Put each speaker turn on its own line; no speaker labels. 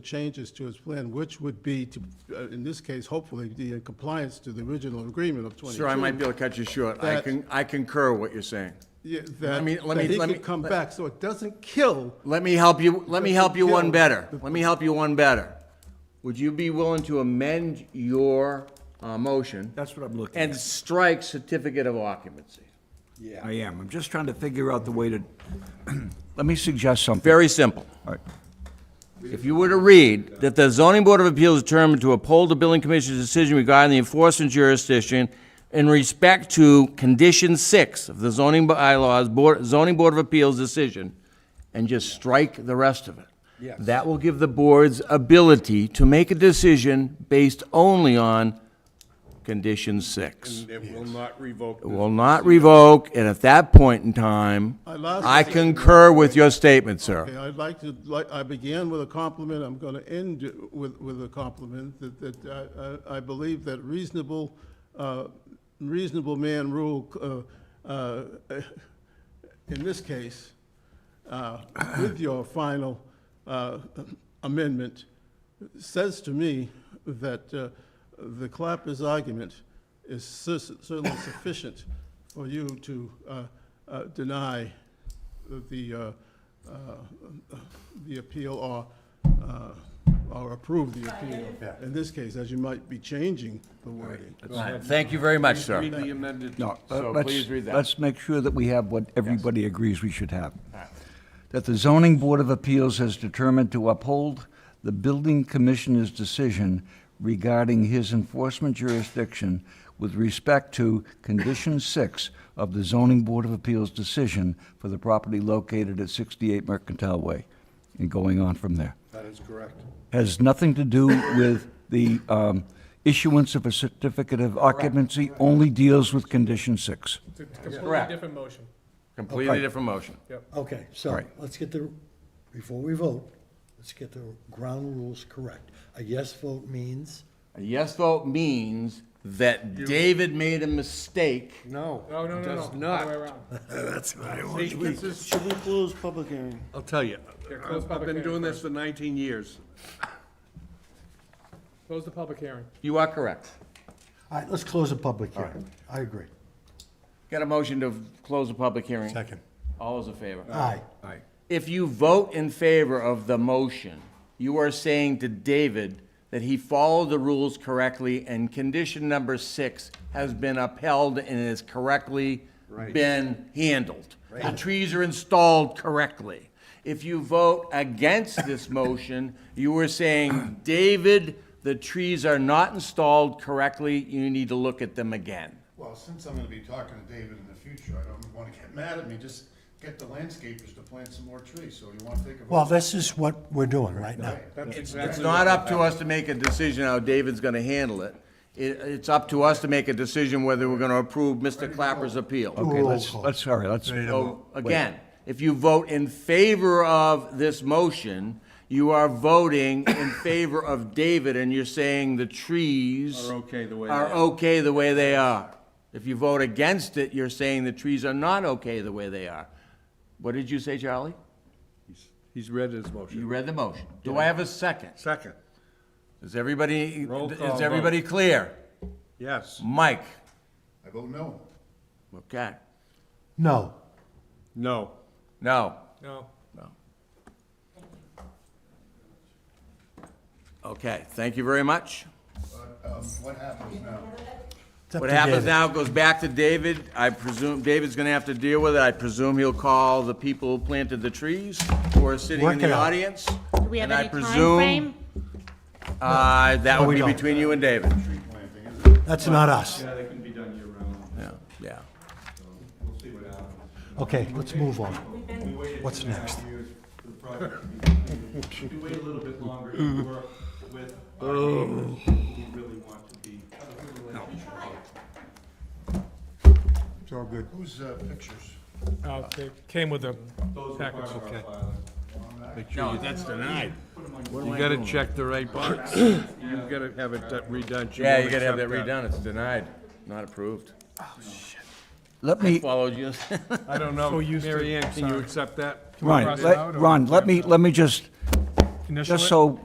changes to his plan, which would be to, uh, in this case, hopefully, the uh, compliance to the original agreement of 22.
Sir, I might be able to cut you short. I
That-
can, I concur what you're saying.
Yeah,
Let
That,
me- let me-
that he
let me-
could come back, so it doesn't kill,
Let me help you, let me help you one
Kill.
better. Let me help you one better. Would you be willing to amend your, uh, motion?
That's what I'm looking
And strike certificate of occupancy?
I am. I'm just trying to figure out the way to, let me suggest something.
Very simple.
All right.
If you were to read that the zoning board of appeals determined to uphold the building commissioner's decision regarding the enforcement jurisdiction in respect to condition six of the zoning bylaws, board, zoning board of appeals decision, and just strike the rest of it.
Yes.
That will give the board's ability to make a decision based only on condition six.
It will not revoke.
It will not revoke, and at that point in time,
I lost-
I concur with your statement, sir.
Okay, I'd like to, like, I began with a compliment, I'm going to end with, with a compliment, that, that uh, I- I, I believe that reasonable, uh, reasonable man rule, uh, uh, in this case, uh, with your final uh, amendment, says to me that uh, the Clapper's argument is cer- certainly sufficient for you to uh, uh, deny the, uh, uh, the appeal or, uh, or approve the appeal. In this case, as you might be changing the wording.
Thank you very much, sir.
Read the amended,
No,
So
let's-
please read that.
Let's make sure that we have what everybody agrees we should have. That the zoning board of appeals has determined to uphold the building commissioner's decision regarding his enforcement jurisdiction with respect to condition six of the zoning board of appeals decision for the property located at sixty-eight Mercantile Way, and going on from there.
That is correct.
has nothing to do with the um, issuance of a certificate of occupancy, only deals with condition six.
It's a completely
Correct.
different motion.
Completely different motion.
Okay, so let's get the, before we vote, let's get the ground rules correct. A yes vote means,
A yes vote means that David made a mistake.
no.
No, no, no, no.
Does
Other way
not.
around.
Should we close public hearing?
I'll tell you,
Yeah, close
I've
public
been
hearing
doing this for 19 years.
Close the public hearing.
You are correct.
all right, let's close the public hearing. I agree.
Got a motion to close the public hearing?
Second.
All those in favor?
Aye.
If you vote in favor of the motion, you are saying to David that he followed the rules correctly and condition number six has been upheld and has correctly been handled. The trees are installed correctly. If you vote against this motion, you are saying, David, the trees are not installed correctly, you need to look at them again.
Well, since I'm gonna be talking to David in the future, I don't wanna get mad at me, just get the landscapers to plant some more trees, so you wanna take a.
Well, this is what we're doing right now.
It's not up to us to make a decision how David's gonna handle it. It, it's up to us to make a decision whether we're gonna approve Mr. Clapper's appeal.
Okay,
Roll
let's,
call.
let's, all right, let's,
So, again, if you vote in favor of this motion, you are voting in favor of David, and you're saying the trees
Are okay the way they
are
are.
okay the way they are. If you vote against it, you're saying the trees are not okay the way they are. What did you say, Charlie?
He's read his
You
motion.
read the motion. Do I have a second?
Second,
Is everybody,
Roll call
is everybody clear?
yes.
Mike?
I vote no.
Okay.
No,
No.
No.
No.
Okay, thank you very much.
But, um, what happens now?
it's up
What
to
happens
David.
now goes back to David. I presume, David's gonna have to deal with it. I presume he'll call the people who planted the trees who are sitting in
Work it
the
out.
audience.
Do we have
And I
any
presume-
timeframe?
Uh, that would
we
be
don't.
between you and David.
That's not us.
Yeah, yeah.
Okay, let's move on. What's next?
We wait a little bit longer to work with our neighbors who really want to be, have a good relationship.
It's all good.
Who's, uh, pictures?
Uh, they Came with a
Those are part
package.
of our filing.
No, that's denied. You gotta check the right box. You gotta have it redone.
Yeah, you
won't
gotta have that
accept
redone. It's denied, not approved.
let me,
Followed you.
I don't know.
used to-
Mary Ann, can you
sorry.
accept that?
Ron,
cross it out
let,
or-
Ron, let me, let me just,
Initial
just
it?
so